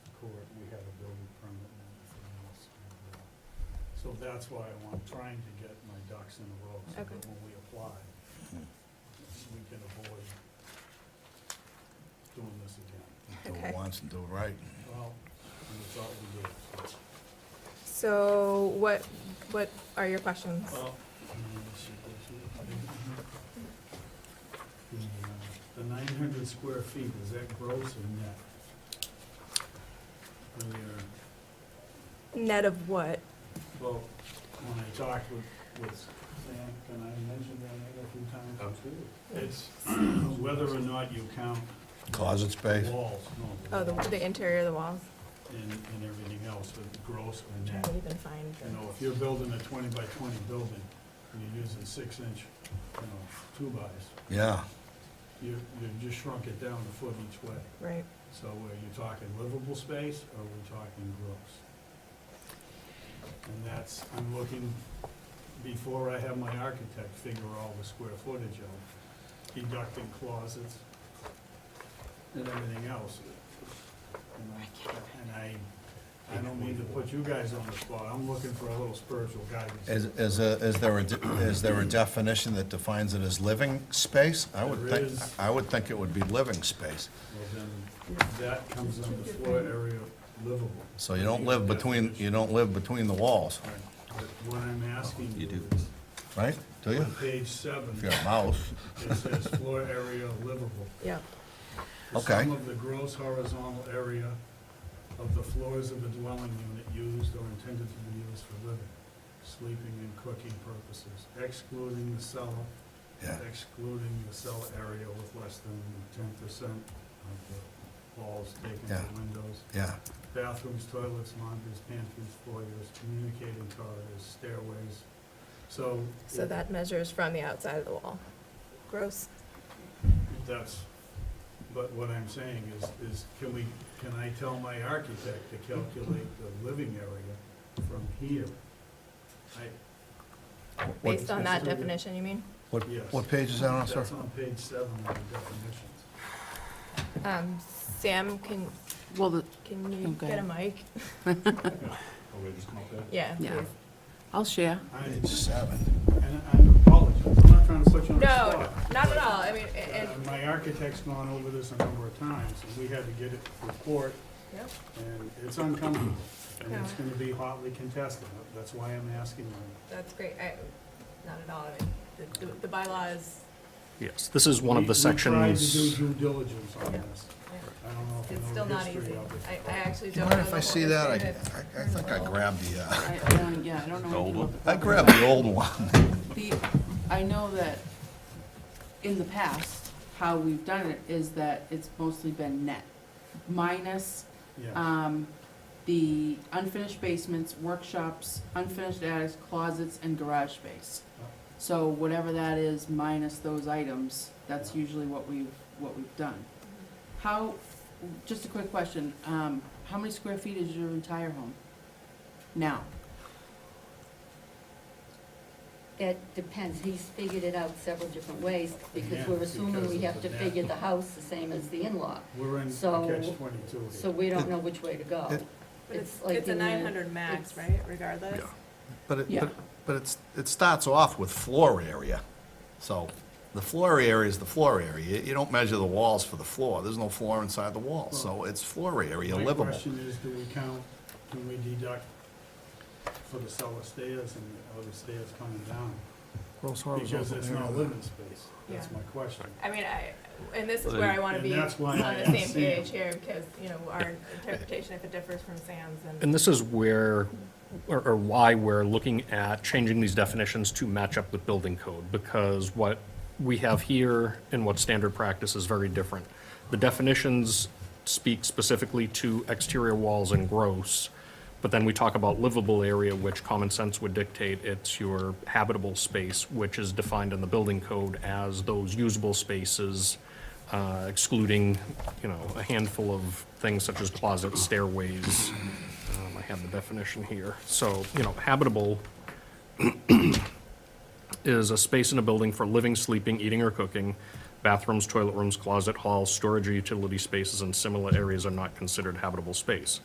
uh, So that's why I'm trying to get my ducks in a row, so that Okay. when we apply, we can avoid doing this again. Do Okay. it once and do it right. Well, and it's all we do, so. So what, what are your questions? Well, I mean, let's see, let's see. I think- The nine hundred square feet, is that gross or net? Earlier, Net of what? well, when I talked with, with Sam, and I mentioned that a few times. It's whether or not you count Closet the space, walls, Oh, no, the the, walls the interior of the walls? and, and everything else, but gross I'm or trying net. to even find You know, the- if you're building a twenty by twenty building, and you're using six inch, you know, two bys, yeah. you, you just shrunk it down a foot each way. right. So are you talking livable space, or are we talking gross? And that's, I'm looking, before I have my architect figure all the square footage of deducting closets and everything else. You know, And I, I don't mean to put you guys on the spot, I'm looking for a little spiritual guidance. Is, is, a- is there a, de- is there a definition that defines it as living space? I would There think, is. I would think it would be living space. Well, then, that comes under floor area livable. So you don't live between, you don't live between the walls, Right, But what I'm asking You you do. is, right? Do you? on page seven, If you're a mouse, it says floor area livable. Yeah, The Okay. Sum of the gross horizontal area of the floors of a dwelling unit used or intended to be used for living, sleeping, and cooking purposes, excluding the cellar, yeah, excluding the cellar area with less than ten percent of the walls taken Yeah. from windows, yeah, bathrooms, toilets, laundries, pantries, foyers, communicating corridors, stairways. So. so it- that measures from the outside of the wall. Gross. That's, but what I'm saying is, is can we, can I tell my architect to calculate the living area from here? I, Based on that That's really- definition, you mean? What, Yes. what page is that on, sir? that's on page seven of the definitions. Um, Sam, can, Well, the- can Oh, you go get a ahead. mic? Oh, wait, it's not that? Yeah, Yeah. please. I'll share. I, Page seven. and I apologize, I'm not trying to put you on the No, spot. not at but, all, I mean, a- uh, and, My architect's gone over this a number of times, and we had to get it report, Yep. and it's uncomfortable, and it's Yeah. gonna be hotly contested, that's why I'm asking you. that's great, I, not at all, I mean, the, the bylaw is, Yes, this is one of We- the We sections. tried to do due diligence on Yeah. this. I don't know if you it's know still the not history easy. of it. I, I actually Do you don't know. mind if the I see whole that? I, history of- I- I think I grabbed the, uh, I, I don't, yeah, I don't know. The old anything one? about I grabbed the old one. The, I know that in the past, how we've done it is that it's mostly been net, minus, uh, Yeah, um, the unfinished basements, workshops, unfinished attics, closets, and garage space. So whatever that is, minus those items, that's usually what we've, what we've done. How, just a quick question, um, how many square feet is your entire home now? That depends, he's figured it out several different ways, Yeah, because we're assuming because we of have the to net. figure the house the same as the in-law, we're in a so- catch twenty-two so here. we don't know which way to go. It- But it's, like it's a in the- nine hundred max, it's- right, regardless? Yeah. But it, Yeah. but, but it's, it starts off with floor area. So the floor area is the floor area. You- You don't measure the walls for the floor. There's no floor inside the wall, so it's floor area My livable. question is, do we count, can we deduct for the cellar stairs and the other stairs coming down? Because it's not living space, that's Yeah. my question. I mean, I, and this is where I wanna And be on that's why I the same asked Sam. page here, because, you know, our interpretation, if it differs from Sam's, And and this is where, or or why we're looking at changing these definitions to match up with building code, because what we have here and what standard practice is very different. The definitions speak specifically to exterior walls and gross, but then we talk about livable area, which common sense would dictate it's your habitable space, which is defined in the building code as those usable spaces, uh, excluding, you know, a handful of things such as closets, stairways. Um, I have the definition here. So, you know, habitable is a space in a building for living, sleeping, eating, or cooking. Bathrooms, toilet rooms, closet, hall, storage, or utility spaces, and similar areas are not considered habitable space.